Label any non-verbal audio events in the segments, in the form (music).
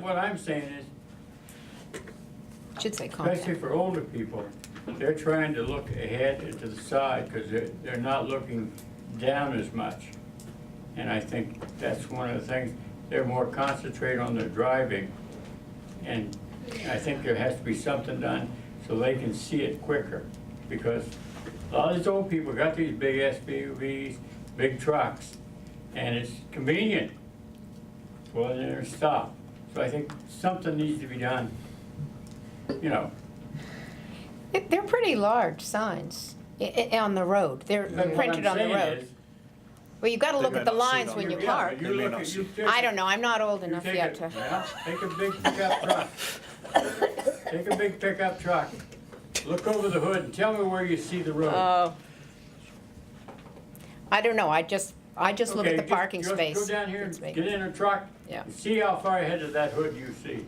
what I'm saying is, Should say contact. especially for older people, they're trying to look ahead and to the side, because they're, they're not looking down as much. And I think that's one of the things, they're more concentrated on their driving. And I think there has to be something done so they can see it quicker. Because a lot of these old people got these big SUVs, big trucks, and it's convenient. Well, they're stopped. So I think something needs to be done, you know. They- They're pretty large signs i- i- on the road. They're But what printed I'm on the saying road. is, Well, you gotta They look may at the not see it lines on when the you road. yeah, park. but you They may look not at- see you it. take I a- don't know, I'm not old you enough take yet a- to. well, Take a big pickup truck. Take a big pickup truck. Look over the hood and tell me where you see the road. Oh. I don't know, I just, I just look at Okay, the parking just- space. Just go down here It's and big. get in a truck. Yeah. and See how far ahead of that hood you see.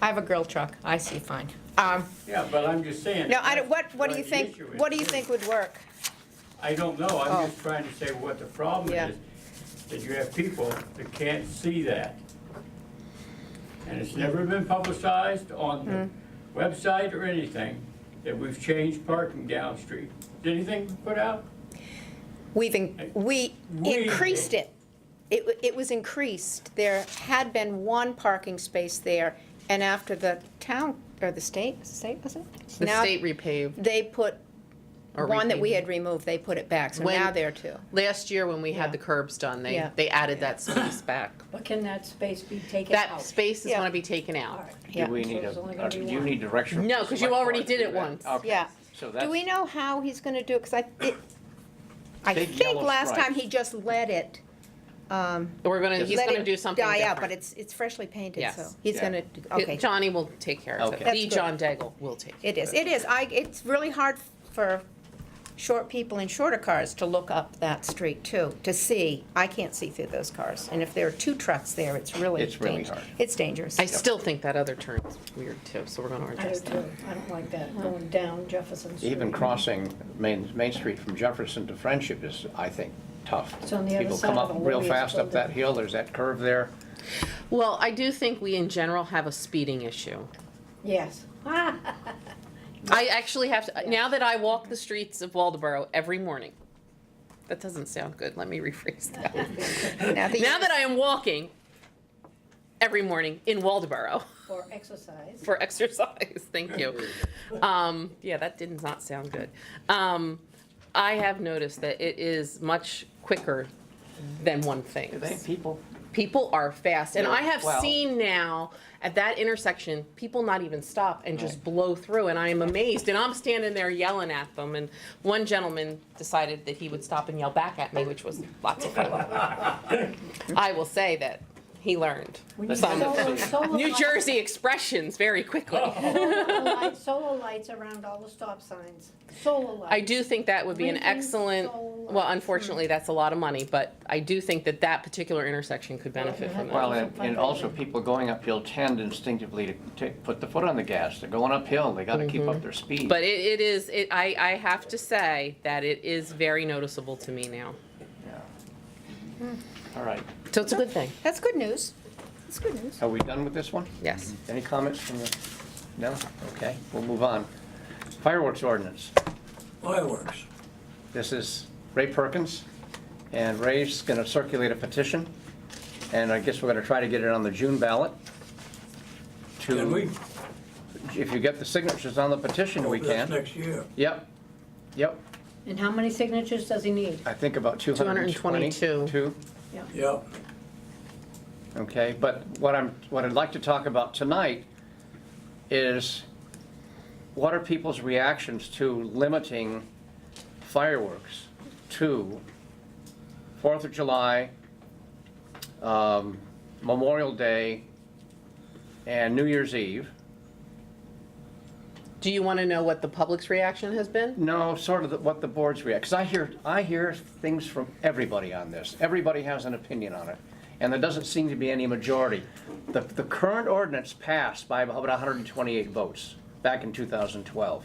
I have a grill truck, I see fine. Um, Yeah, but I'm just saying. no, I don't, what, what do you the think, issue is. what do you think would work? I don't know, I'm Oh. just trying to say what the problem Yeah. is, that you have people that can't see that. And it's never been publicized on the Hmm. website or anything, that we've changed parking down street. Did anything put out? We've, in- we We- increased it. It, wa- it was increased. There had been one parking space there, and after the town, or the state, state was it? The Now state repaved. They put, Or one that we repaved. had removed, they put it back, so When- now there are two. Last year when we had the curbs done, they, Yeah. they added that space back. But can that space be taken out? That space is Yeah. gonna be taken All out. right. Yeah. Do we So need it's only a, gonna uh, be do you one. need direction? from No, the 'cause you select already board did to it do that? once. Okay. Yeah. So Do we that's, know how he's gonna do it? Because I, it, I Big think yellow last time stripes. he just let it, um, We're gonna, he's let gonna it do something die out, but different. it's, it's freshly painted, Yes. so he's Yeah. gonna, do- okay. It- Johnny will take care of it. Okay. That's The good. John Daigle will take care It is, it is. I, it's really hard for short people in shorter cars to look up that street too, to see. I can't see through those cars. And if there are two trucks there, it's really It's really dangerous. hard. It's dangerous. I still think that other turn's weird too, so we're gonna I do address that. too. I don't like that, going down Jefferson Street. even crossing Main, Main Street from Jefferson to Friendship is, I think, tough. It's on the other People side come of the up real Willoughby's fast up that building. hill, there's that curve there. Well, I do think we in general have a speeding issue. Yes. (laughs) Ah, I actually have to, now that I walk the streets of Waldeboro every morning. That doesn't sound good, let me rephrase that. (laughs) Now that you- Now that I am walking every morning in Waldeboro For exercise. for exercise, (laughs) thank you. Um, yeah, that did not sound good. Um, I have noticed that it is much quicker than one thing. people. People are fast, and I have Well- seen now at that intersection, people not even stop and just blow through, and I am amazed, and I'm standing there yelling at them, and one gentleman decided that he would stop and yell back at me, which was lots of fun. (laughs) I will say that he learned We need some solar- solar New lights- Jersey expressions very quickly. (laughs) solar lights- Solar lights around all the stop signs, solar lights. I do think that would be an Lincoln excellent, Solar. well, unfortunately, that's a lot of money, but I do think that that particular intersection could benefit from that. Well, and and also people going uphill tend instinctively to take, put the foot on the gas. They're going uphill, they gotta keep up their speed. Mm-hmm. But it, it is, it, I, I have to say that it is very noticeable to me now. Yeah. All right, So it's a good thing, That's good news. That's good news. are we done with this one? yes. Any comments from the, no? Okay, we'll move on. Fireworks ordinance. fireworks. This is Ray Perkins, and Ray's going to circulate a petition, and I guess we're going to try to get it on the June ballot. To- Can we? If you get the signatures on the petition, we Hope that's can. Next year. Yep, yep, And how many signatures does he need? I think about 220. 222. Two. Yeah. Okay, but what I'm, what I'd like to talk about tonight is what are people's reactions to limiting fireworks to Fourth of July, um, Memorial Day, and New Year's Eve? Do you want to know what the public's reaction has been? No, sort of the- what the boards react, because I hear, I hear things from everybody on this. Everybody has an opinion on it, and there doesn't seem to be any majority. The, the current ordinance passed by about 128 votes back in 2012.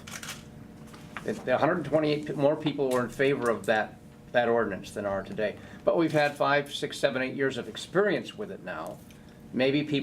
It- the 128 p- more people were in favor of that, that ordinance than are today. But we've had five, six, seven, eight years of experience with it now. Maybe people